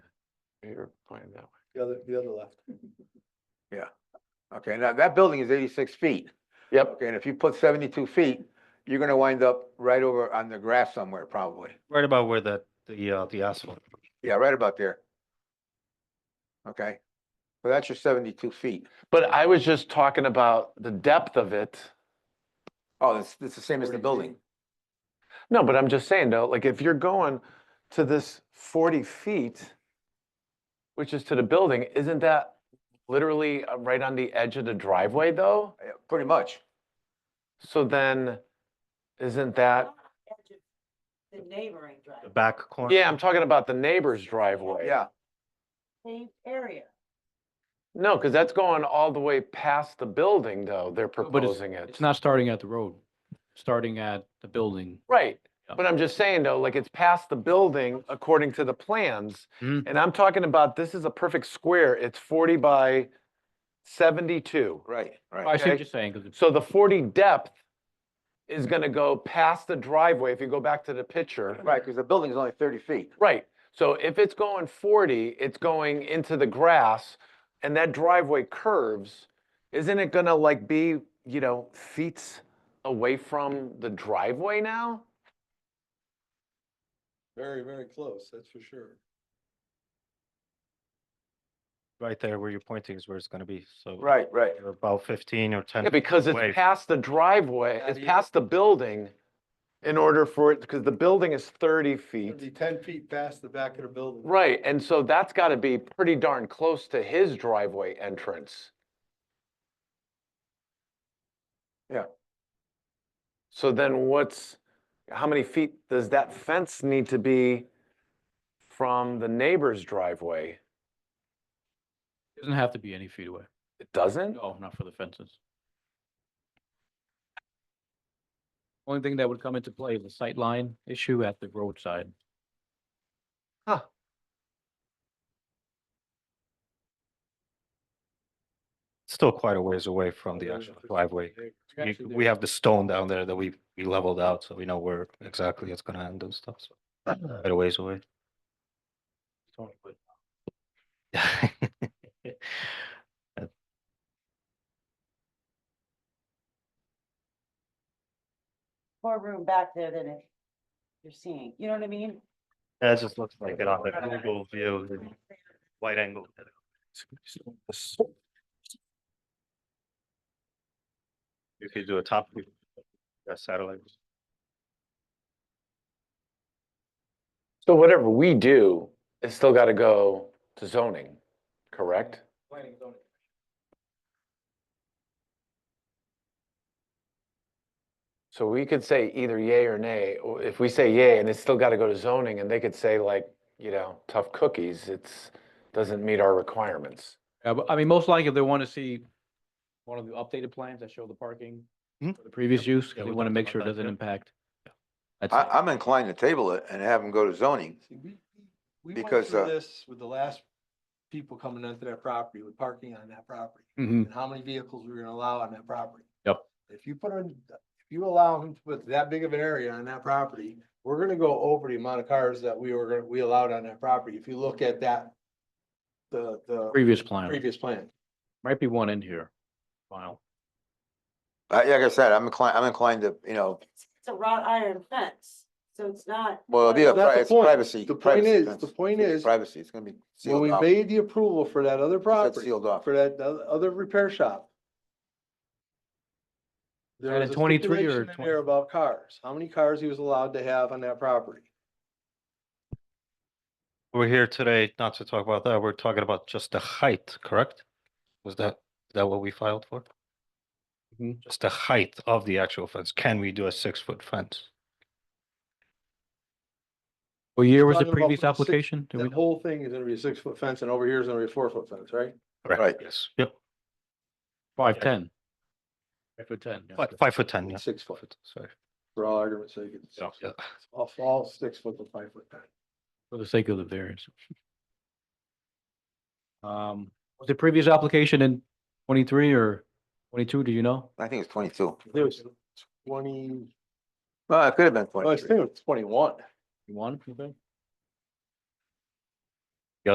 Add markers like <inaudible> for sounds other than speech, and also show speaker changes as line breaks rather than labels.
Here, find that.
The other, the other left.
Okay, now that building is eighty-six feet.
Yep,
Okay, and if you put seventy-two feet, you're gonna wind up right over on the grass somewhere probably.
Right about where the, the, uh, the asphalt.
Yeah, right about there. Okay, so that's your seventy-two feet.
but I was just talking about the depth of it.
Oh, it's, it's the same as the
40 feet.
building.
No, but I'm just saying though, like if you're going to this forty feet, which is to the building, isn't that literally uh, right on the edge of the driveway though?
Yeah, Pretty much.
So then, isn't that,
edge of The neighboring
the
driveway,
back corner.
yeah, I'm talking about the neighbor's driveway.
Yeah,
paved area.
No, because that's going all the way past the building though, they're
But it's-
proposing it.
It's not starting at the road, starting at the building.
Right,
Yeah.
but I'm just saying though, like it's past the building according to the plans.
Mhm.
And I'm talking about, this is a perfect square, it's forty by seventy-two.
right,
I
right.
see
Okay.
what you're saying, 'cause it's-
So the forty depth is gonna go past the driveway, if you go back to the picture.
Right, because the building's only thirty feet.
Right, so if it's going forty, it's going into the grass, and that driveway curves, isn't it gonna like be, you know, feet away from the driveway now?
Very, very close, that's for sure.
Right there where you're pointing is where it's gonna be, so.
Right, right.
You're about fifteen or ten.
Yeah, because
away.
it's past the driveway,
Yeah,
it's
the-
past the building in order for it, because the building is thirty
It'd be
feet.
ten feet past the back of the building.
Right, and so that's gotta be pretty darn close to his driveway entrance.
Yeah.
So then what's, how many feet does that fence need to be from the neighbor's driveway?
it doesn't have to be any feet away.
It doesn't?
No, not for the fences. Only thing that would come into play is the sight line issue at the roadside.
Still quite a ways away from the actual driveway. You- We have the stone down there that we, we leveled out, so we know where exactly it's gonna end and stuff, so. Quite a ways away. <laughs>
More room back there than it- you're seeing, you know what I mean?
That just looks like it on the Google view, the wide angle. You could do a top view, a satellite.
So whatever we do, it's still gotta go to zoning, correct? So we could say either yay or nay, or if we say yay and it's still gotta go to zoning and they could say like, you know, tough cookies, it's, doesn't meet our requirements.
Yeah, but I mean, most likely if they want to see one of the updated plans that show the parking
Mhm.
for the previous use, 'cause
Yeah,
they
we
want to
talked
make
about
sure it
that,
doesn't
yeah.
impact. That's
I,
it.
I'm inclined to table it and have them go to zoning.
See, we- We we went
Because,
through
uh,
this with the last people coming onto that property, with parking on that property,
Hmm.
Mhm.
and how many vehicles we we're gonna allow on that property.
Yep.
If you put on, if you allow him to put that big of an area on that property, we're gonna go over the amount of cars that we were, we allowed on that property, if you look at that. The, the
Previous plan,
previous plan.
might be one in here. Wow.
Uh, Like I said, I'm inclined, I'm inclined to, you know,
It's it's a wrought iron fence, so it's not.
well, it'll be a
Well, that's
pri-
the
it's
point.
privacy.
The point
privacy
is-
fence.
the point
It's
is,
Privacy, it's gonna be
When
sealed
we
off.
made the approval for that other
uh, That's
property,
sealed off.
for that o- other repair shop. There
That
was
in
a
23 or
stipulation in there
20?
about cars, how many cars he was allowed to have on that property.
We're here today not to talk about that, we're talking about just the height, correct? Was that, is that what we filed for? Just the height of the actual fence, can we do a six-foot fence?
What year was the
Talking about
previous
from the six-
application? Do we
That
know?
whole thing is gonna be a six foot fence and over here is gonna be a four foot fence, right?
Right.
Yes, yep,
Five, ten. Five foot ten. yeah.
five, five foot ten, yeah.
Six
Five
foot,
foot, Sorry.
for all arguments sake. it's six
Yeah.
foot. All, all six foot to five foot. fence.
For the sake of the variance. Um, was the previous application in twenty-three or twenty-two, do you know?
I think it's twenty-two.
I think It was twenty,
Well, it could have been
well, I
twenty-three.
think it was twenty one.
One, you think?